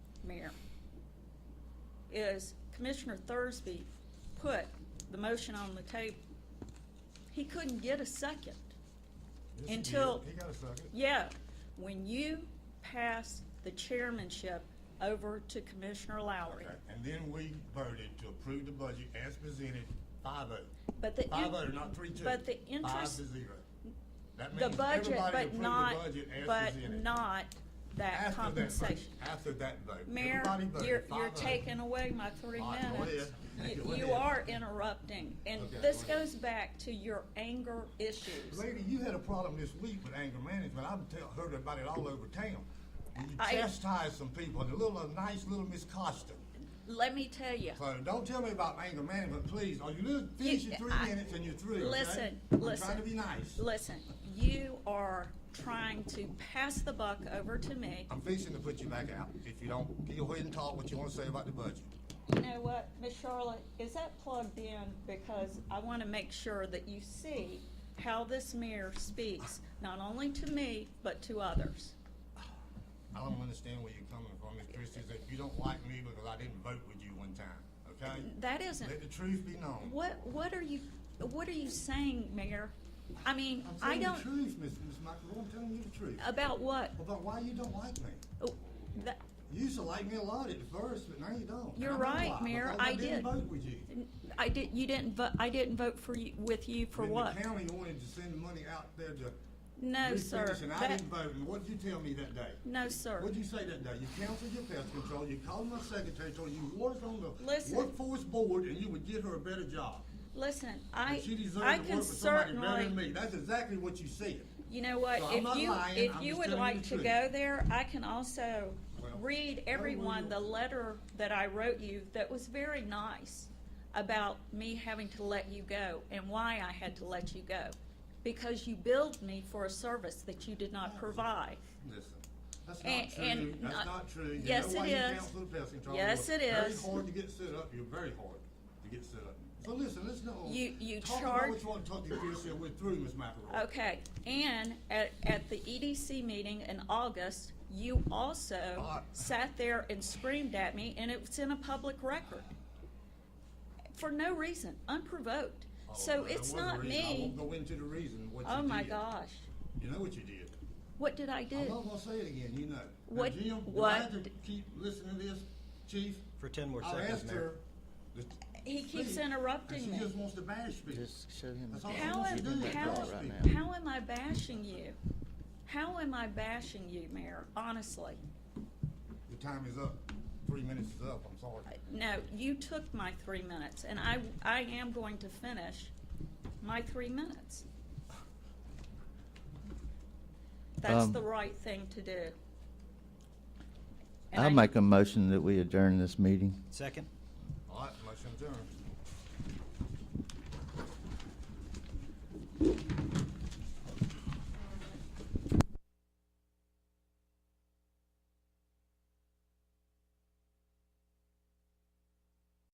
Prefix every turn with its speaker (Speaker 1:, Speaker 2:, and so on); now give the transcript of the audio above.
Speaker 1: Mayor, is Commissioner Thursby put the motion on the table. He couldn't get a second.
Speaker 2: Yes, he
Speaker 1: Until-
Speaker 2: did. He got a second.
Speaker 1: Yeah, when you pass the chairmanship over to Commissioner Lowry.
Speaker 2: Okay, And then we voted to approve the budget as presented, five oh.
Speaker 1: But the.
Speaker 2: Five
Speaker 1: in-
Speaker 2: oh, not three two.
Speaker 1: But the
Speaker 2: Five
Speaker 1: interest,
Speaker 2: to zero. That
Speaker 1: the
Speaker 2: means
Speaker 1: budget,
Speaker 2: everybody
Speaker 1: but
Speaker 2: approved the
Speaker 1: not,
Speaker 2: budget as
Speaker 1: but
Speaker 2: presented.
Speaker 1: not that
Speaker 2: After vote-
Speaker 1: compensation.
Speaker 2: After that vote.
Speaker 1: Mayor,
Speaker 2: Everybody voted
Speaker 1: you're,
Speaker 2: five
Speaker 1: you're
Speaker 2: oh.
Speaker 1: taking away my three
Speaker 2: All right, go
Speaker 1: minutes.
Speaker 2: ahead.
Speaker 1: You-
Speaker 2: Go
Speaker 1: You
Speaker 2: ahead.
Speaker 1: are interrupting, and
Speaker 2: Okay,
Speaker 1: this
Speaker 2: go ahead.
Speaker 1: goes back to your anger issues.
Speaker 2: Lady, you had a problem this week with anger management. I've tell, heard about it all over town. When you
Speaker 1: I-
Speaker 2: chastise some people, and a little, a nice little Miss Costa.
Speaker 1: Let me tell you,
Speaker 2: So don't tell me about anger management, please. Are you li- finish your three
Speaker 1: I-
Speaker 2: minutes and you're through, okay?
Speaker 1: listen,
Speaker 2: I'm
Speaker 1: listen.
Speaker 2: trying to be nice.
Speaker 1: listen, you are trying to pass the buck over to me.
Speaker 2: I'm fixing to put you back out. If you don't, go ahead and talk what you want to say about the budget.
Speaker 1: You know what, Miss Charlotte, is that plugged in? Because I want to make sure that you see how this mayor speaks, not only to me, but to others.
Speaker 2: I don't understand where you're coming from, Ms. Christie, is that you don't like me because I didn't vote with you one time, okay?
Speaker 1: That isn't,
Speaker 2: Let the truth be known.
Speaker 1: what, what are you, what are you saying, Mayor? I mean,
Speaker 2: I'm
Speaker 1: I
Speaker 2: telling you the
Speaker 1: don't, Uh,
Speaker 2: truth, Ms. Ms. McElroy, I'm telling you the truth.
Speaker 1: about what?
Speaker 2: About why you don't like me.
Speaker 1: Oh, that-
Speaker 2: You used to like me a lot at first, but now you don't. And
Speaker 1: You're
Speaker 2: I know
Speaker 1: right,
Speaker 2: why,
Speaker 1: Mayor,
Speaker 2: because
Speaker 1: I
Speaker 2: didn't
Speaker 1: did.
Speaker 2: vote with you.
Speaker 1: I did, you didn't, vo- I didn't vote for you, with you for
Speaker 2: Then
Speaker 1: what?
Speaker 2: the county wanted to send money out there to
Speaker 1: No, sir.
Speaker 2: refinish, and I
Speaker 1: That-
Speaker 2: didn't vote, and what'd you tell me that day?
Speaker 1: No, sir.
Speaker 2: What'd you say that day? You counseled your pest control, you called my secretary, told her you worked on the
Speaker 1: Listen.
Speaker 2: workforce board, and you would get her a better job.
Speaker 1: Listen, I,
Speaker 2: And she deserved
Speaker 1: I
Speaker 2: to
Speaker 1: can
Speaker 2: work for somebody better than
Speaker 1: certainly,
Speaker 2: me. That's exactly what you said.
Speaker 1: You know what,
Speaker 2: So I'm
Speaker 1: if
Speaker 2: not
Speaker 1: you,
Speaker 2: lying,
Speaker 1: if
Speaker 2: I'm
Speaker 1: you
Speaker 2: just
Speaker 1: would
Speaker 2: telling
Speaker 1: like
Speaker 2: you the
Speaker 1: to
Speaker 2: truth.
Speaker 1: go there, I can also
Speaker 2: Well,
Speaker 1: read
Speaker 2: where were
Speaker 1: everyone
Speaker 2: you?
Speaker 1: the letter that I wrote you that was very nice about me having to let you go and why I had to let you go. Because you billed me for a service that you did not provide.
Speaker 2: Listen, that's
Speaker 1: And-
Speaker 2: not true.
Speaker 1: and not-
Speaker 2: That's not true. You
Speaker 1: Yes,
Speaker 2: know why
Speaker 1: it
Speaker 2: you
Speaker 1: is.
Speaker 2: counseled the pest control.
Speaker 1: Yes,
Speaker 2: You're
Speaker 1: it is.
Speaker 2: Very hard to get set up. You're very hard to get set up. So listen, let's not.
Speaker 1: You- you
Speaker 2: Talk
Speaker 1: charge-
Speaker 2: about what you want to talk to Chris, and we're through, Ms. McElroy.
Speaker 1: Okay, and at, at the EDC meeting in August, you also
Speaker 2: Ah.
Speaker 1: sat there and screamed at me, and it was in a public record. For no reason, unprovoked.
Speaker 2: Oh,
Speaker 1: So
Speaker 2: well, there
Speaker 1: it's
Speaker 2: was a
Speaker 1: not
Speaker 2: reason. I
Speaker 1: me.
Speaker 2: won't go into the reason what you
Speaker 1: Oh, my
Speaker 2: did.
Speaker 1: gosh.
Speaker 2: You know what you did.
Speaker 1: What did I
Speaker 2: I'm
Speaker 1: do?
Speaker 2: not gonna say it again, you know. Now,
Speaker 1: Uh, What-
Speaker 2: Jim, do I
Speaker 1: what
Speaker 2: have to
Speaker 1: d-
Speaker 2: keep listening to this, chief?
Speaker 3: For 10 more
Speaker 2: I've
Speaker 3: seconds,
Speaker 2: asked
Speaker 3: Mayor.
Speaker 2: her. to
Speaker 1: He keeps
Speaker 2: speak, and
Speaker 1: interrupting me.
Speaker 2: She just wants to bash me.
Speaker 4: Just show him.
Speaker 2: That's
Speaker 4: the
Speaker 2: all
Speaker 4: drawing.
Speaker 2: I
Speaker 1: How
Speaker 2: want you to
Speaker 1: am,
Speaker 2: do.
Speaker 1: how,
Speaker 2: Right
Speaker 4: now.
Speaker 1: how am I bashing you? How am I bashing you, Mayor, honestly?
Speaker 2: Your time is up. Three minutes is up, I'm sorry.
Speaker 1: No, you took my three minutes, and I, I am going to finish my three minutes. That's
Speaker 4: Um,
Speaker 1: the right thing to do. And
Speaker 4: I'll
Speaker 1: I-
Speaker 4: make a motion that we adjourn this meeting.
Speaker 3: Second?
Speaker 2: All right, motion adjourned.